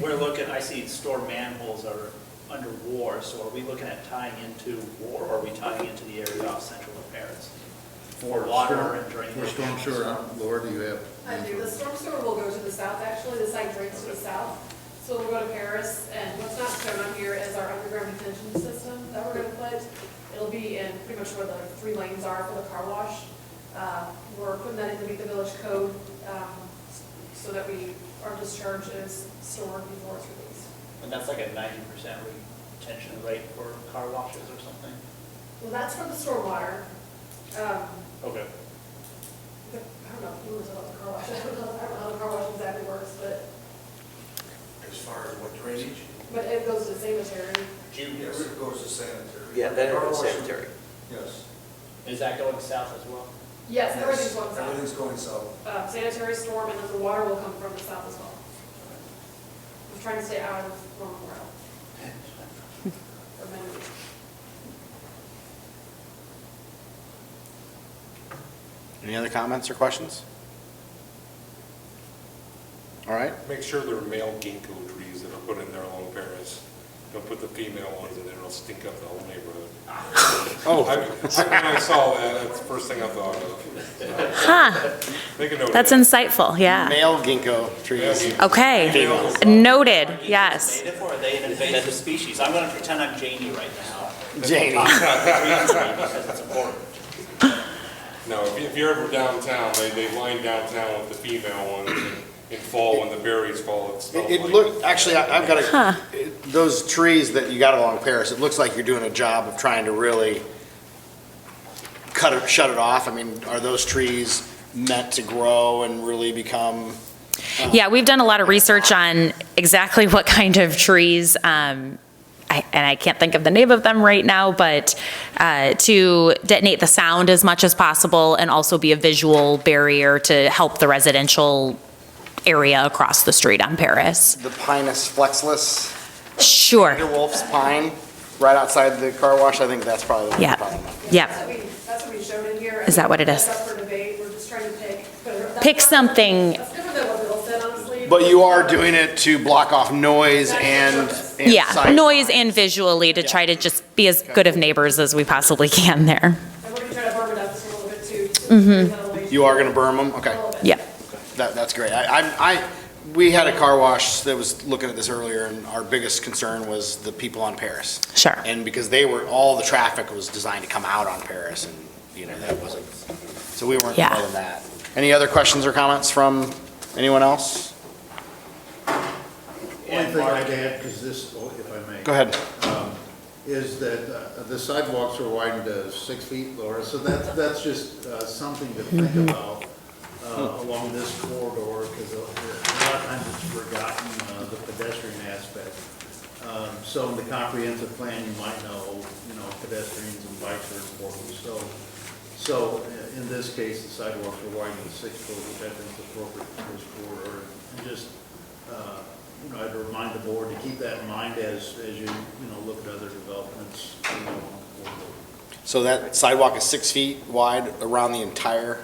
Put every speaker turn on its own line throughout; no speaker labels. We're looking, I see store manholes are under war, so are we looking at tying into war, or are we tying into the area off Central and Paris? For water and drainage?
For storm sewer, huh? Laura, do you have?
I do, the storm sewer will go to the south, actually, the site drains to the south. So we'll go to Paris, and what's not shown on here is our underground detention system that we're gonna put. It'll be in pretty much where the three lanes are for the car wash. Uh, We're putting that in to meet the village code, um, so that we, our discharge is stored before it's released.
And that's like a ninety percent retention rate for car washes or something?
Well, that's for the stormwater. Um,
Okay.
the- I don't know, who was about the car wash, I don't know, I don't know how the car wash exactly works, but,
As far as what drainage?
but it goes to the sanitary.
Yes, it goes to sanitary.
Yeah, then it
Car
was
wash,
sanitary.
Yes.
Is that going south as well?
Yes, everything's
Yes,
going south.
Everything's going south.
Uh, Sanitary storm, and then the water will come from the south as well. I'm trying to stay out of Norman Royal. Or Mendon.
Any other comments or questions? All right,
Make sure they're male ginkgo trees that are put in there along Paris. Don't put the female ones in there, it'll stink up the whole neighborhood.
Oh.
I- I- When I saw that, that's the first thing I thought of.
Huh,
Make a note of
that's
that.
insightful, yeah.
male ginkgo trees.
Okay,
Males.
noted, yes.
Native, or are they an invasive species? I'm gonna pretend I'm Janie right now.
Janie.
Because it's important.
No, if you- if you're ever downtown, they, they line downtown with the female ones and in fall, when the berries fall, it smells
It
like.
it looked, actually, I- I've got a, it- those trees that you got along Paris, it looks like you're doing a job of trying to really cut it, shut it off. I mean, are those trees meant to grow and really become?
Yeah, we've done a lot of research on exactly what kind of trees, um, I- and I can't think of the name of them right now, but uh, to detonate the sound as much as possible and also be a visual barrier to help the residential area across the street on Paris.
The Pinus flexus,
Sure,
Wolf's pine, right outside the car wash, I think that's probably the one.
Yeah.
you're talking about.
Yep.
That's what we, that's what we showed in here.
Is that what it is?
That's up for debate, we're just trying to pick. but that's
Pick
not-
something-
That's different than what Bill said, honestly.
But you are doing it to block off noise and. and
yeah,
sight.
noise and visually to try to just be as good of neighbors as we possibly can there.
And we're gonna try to burn it up just a little bit too. Mm-hmm.
You are going to burn them? Okay.
Yeah.
That, that's great. I, I'm- I, we had a car wash that was looking at this earlier, and our biggest concern was the people on Paris.
Sure.
And because they were, all the traffic was designed to come out on Paris, and, you know, that wasn't, so we weren't
Yeah.
part of that. Any other questions or comments from anyone else?
Only thing I'd add, because this, oh, if I may.
Go ahead.
Is that uh, the sidewalks are widened to six feet, Laura, so that, that's just uh, something to think about uh, along this corridor, because a lot of times it's forgotten, uh, the pedestrian aspect. Um, So in the comprehensive plan, you might know, you know, pedestrians and bikes are important, so, so i- in this case, the sidewalks are widened to six foot, which I think is appropriate for this corridor, and just uh, you know, I'd remind the board to keep that in mind as, as you, you know, look at other developments. you know, on the corridor.
So that sidewalk is six feet wide around the entire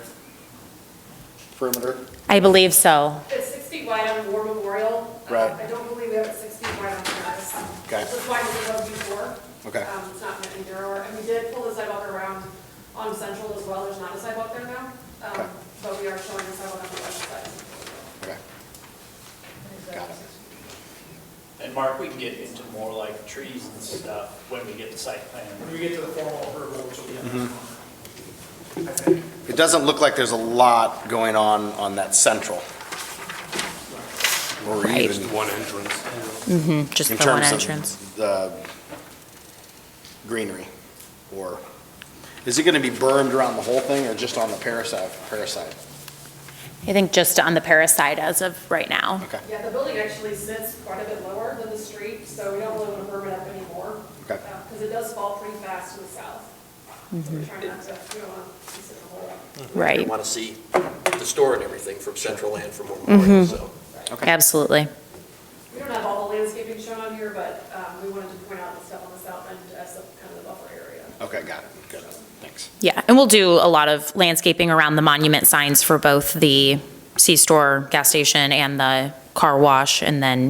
perimeter?
I believe so.
It's six feet wide on War Memorial. Uh,
Right.
I don't believe we have it six feet wide on Paris.
Okay.
It's wide as it was before.
Okay.
Um, It's not meant either, or, and we did pull the sidewalk around on Central as well, there's not a sidewalk there now. Um,
Okay.
But we are showing the sidewalk on the west side.
Okay. Got it.
And Mark, we can get into more like trees and stuff when we get to site plan.
When we get to the formal approval, which will be next month.
It doesn't look like there's a lot going on on that central. Or
Right. Mm-hmm,
even
Just one entrance.
Just
in
the one
terms
entrance.
of the greenery. Or, is it going to be bermed around the whole thing or just on the Paris side? Paris side?
I think just on the Paris side as of right now.
Okay,
Yeah, the building actually sits quite a bit lower than the street, so we don't really want to berm it up anymore.
Okay.
Because it does fall pretty fast to the south. So we're trying not to, we don't want to sit in the hole.
You
Right,
want to see the store and everything from Central and from Memorial, so.
absolutely.
We don't have all the landscaping shown on here, but um, we wanted to point out the stuff on the south end as a- kind of the buffer area.
okay, got it, good, thanks.
Yeah, and we'll do a lot of landscaping around the monument signs for both the C-store, gas station, and the car wash, and then